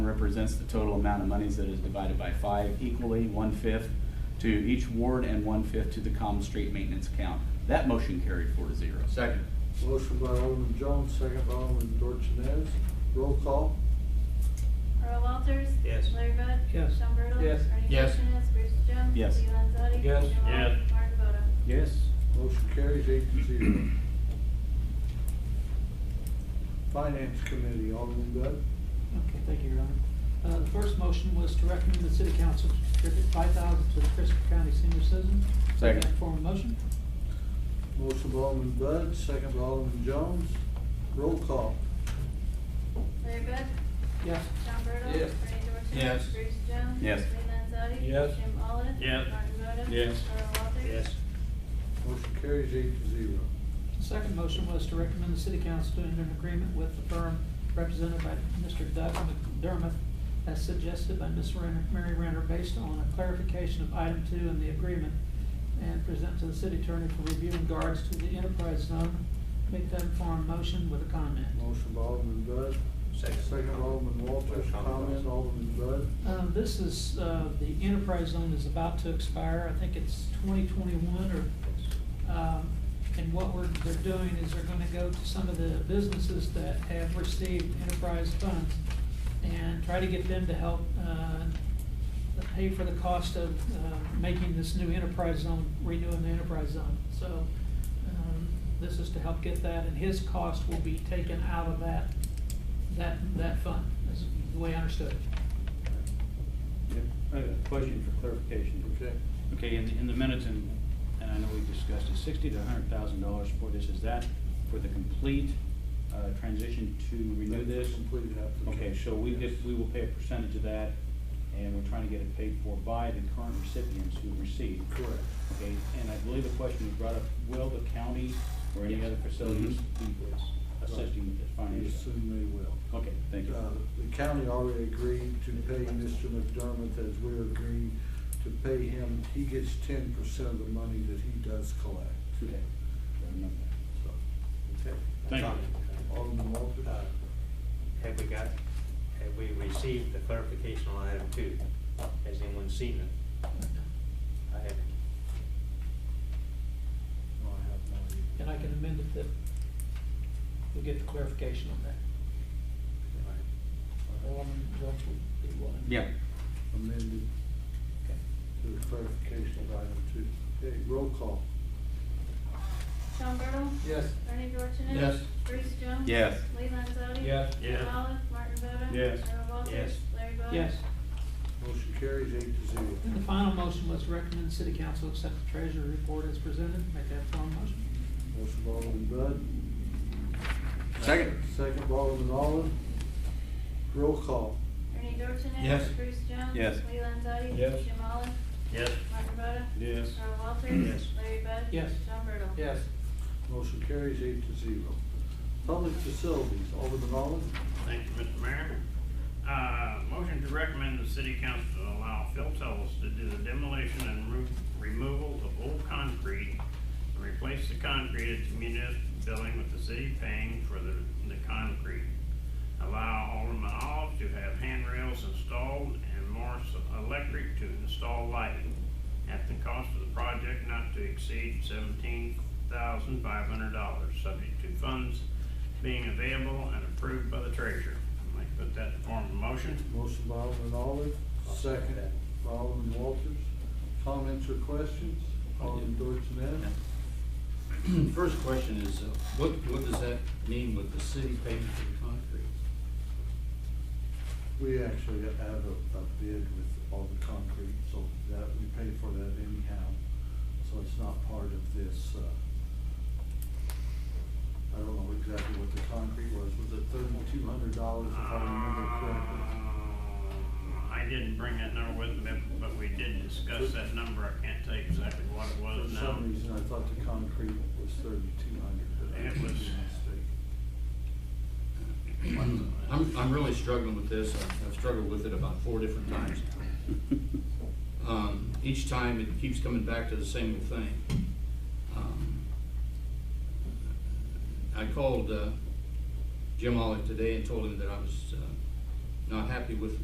represents the total amount of monies that is divided by five equally, one-fifth to each ward and one-fifth to the common street maintenance account. That motion carried four to zero. Second. Motion by Alderman Jones, second by Alderman Dorchenez. Roll call. Earl Walters. Yes. Larry Bud. Yes. Sean Bertle. Yes. Bernie Yes. Dorchenez. Bruce Jones. Yes. Lee Landzadi. Yes. Jim Oliver, Yes. Martin Boda. Yes. Motion carries eight to zero. Finance Committee, Alderman Bud. Okay, thank you, Your Honor. Uh, the first motion was to recommend the city council to contribute five thousand to the Christopher County Senior Citizen. Second. Form of motion? Motion by Alderman Bud, second by Alderman Jones. Roll call. Larry Bud. Yes. Sean Bertle. Yes. Bernie Dorchenez. Yes. Bruce Jones. Yes. Lee Landzadi. Yes. Jim Oliver. Yes. Martin Boda. Yes. Earl Walters. Yes. Motion carries eight to zero. The Second motion was to recommend the city council to enter an agreement with the firm represented by Mr. Doug McDermott as suggested by Ms. Renner, Mary Renner, based on a clarification of item two in the agreement and present to the city attorney for review in regards to the enterprise zone. Make that form motion with a comment. Motion by Alderman Bud, second by Alderman Walters, comment, Alderman Bud. Um, this is, uh, the enterprise zone is about to expire, I think it's twenty twenty-one or, um, and what we're, they're doing is they're gonna go to some of the businesses that have received enterprise funds and try to get them to help, uh, pay for the cost of, uh, making this new enterprise zone, renewing the enterprise zone. So, um, this is to help get that, and his cost will be taken out of that, that, that fund, is the way I understood it. I have a question for clarification. Okay. Okay, in, the- in the minutes, and, and I know we discussed it, sixty to hundred thousand dollars for this, is that for the complete, uh, transition to renew this? Completed application. Okay, so we get, we will pay a percentage of that, and we're trying to get it paid for by the current recipients who receive. Correct. Okay, and I believe the question was brought up, will the county or any other facilities be assisting with this We financially? assume they will. Okay, thank you. Uh, The county already agreed to pay Mr. McDermott as we're agreeing to pay him. He gets ten percent of the money that he does collect. Okay. Remember that. So, Thank you. Alderman Walters? Uh, Have we got, have we received the clarification on item two? Has anyone seen it? I haven't. No, I have no idea. And I can amend it that we'll get the clarification on that. All right. Alderman Jones will be willing. Yeah. Amended Okay. to the clarification of item two. Okay, roll call. Sean Bertle. Yes. Bernie Dorchenez. Yes. Bruce Jones. Yes. Lee Landzadi. Yes. Jim Yeah. Oliver, Martin Boda. Yes. Earl Walters. Yes. Larry Bud. Yes. Motion carries eight to zero. And the final motion was to recommend the city council accept the treasury report as presented. Make that form motion. Motion by Alderman Bud, Second. second by Alderman Olive. Roll call. Bernie Dorchenez. Yes. Bruce Jones. Yes. Lee Landzadi. Yes. Jim Oliver, Yes. Martin Boda. Yes. Earl Walters. Yes. Larry Bud. Yes. Sean Bertle. Motion carries eight to zero. Public facilities, Alderman Olive. Thank you, Mr. Mayor. Uh, Motion to recommend the city council to allow Phil Tells to do the demolition and remo- removal of old concrete and replace the concrete at the municipal building with the city paying for the, the concrete. Allow Alderman Olive to have handrails installed and Morris Electric to install lighting at the cost of the project not to exceed seventeen thousand five hundred dollars, subject to funds being available and approved by the treasurer. I'd like to put that in form of motion. Motion by Alderman Olive, second by Alderman Walters. Comments or questions? Alderman Dorsones? First question is, uh, what, what does that mean with the city paying for the concrete? We actually have a, a bid with all the concrete, so that, we pay for that anyhow. So it's not part of this, uh, I don't know exactly what the concrete was. Was it thirty-two hundred dollars if I remember correctly? Uh, I didn't bring that number with me, but we did discuss that number. I can't tell you exactly what it For was now. some reason, I thought the concrete was thirty-two hundred, but I It could be was- mistaken. I'm, I'm really struggling with this. I've- I've struggled with it about four different times. Um, each time it keeps coming back to the same old thing. Um, I called, uh, Jim Olive today and told him that I was, uh, not happy with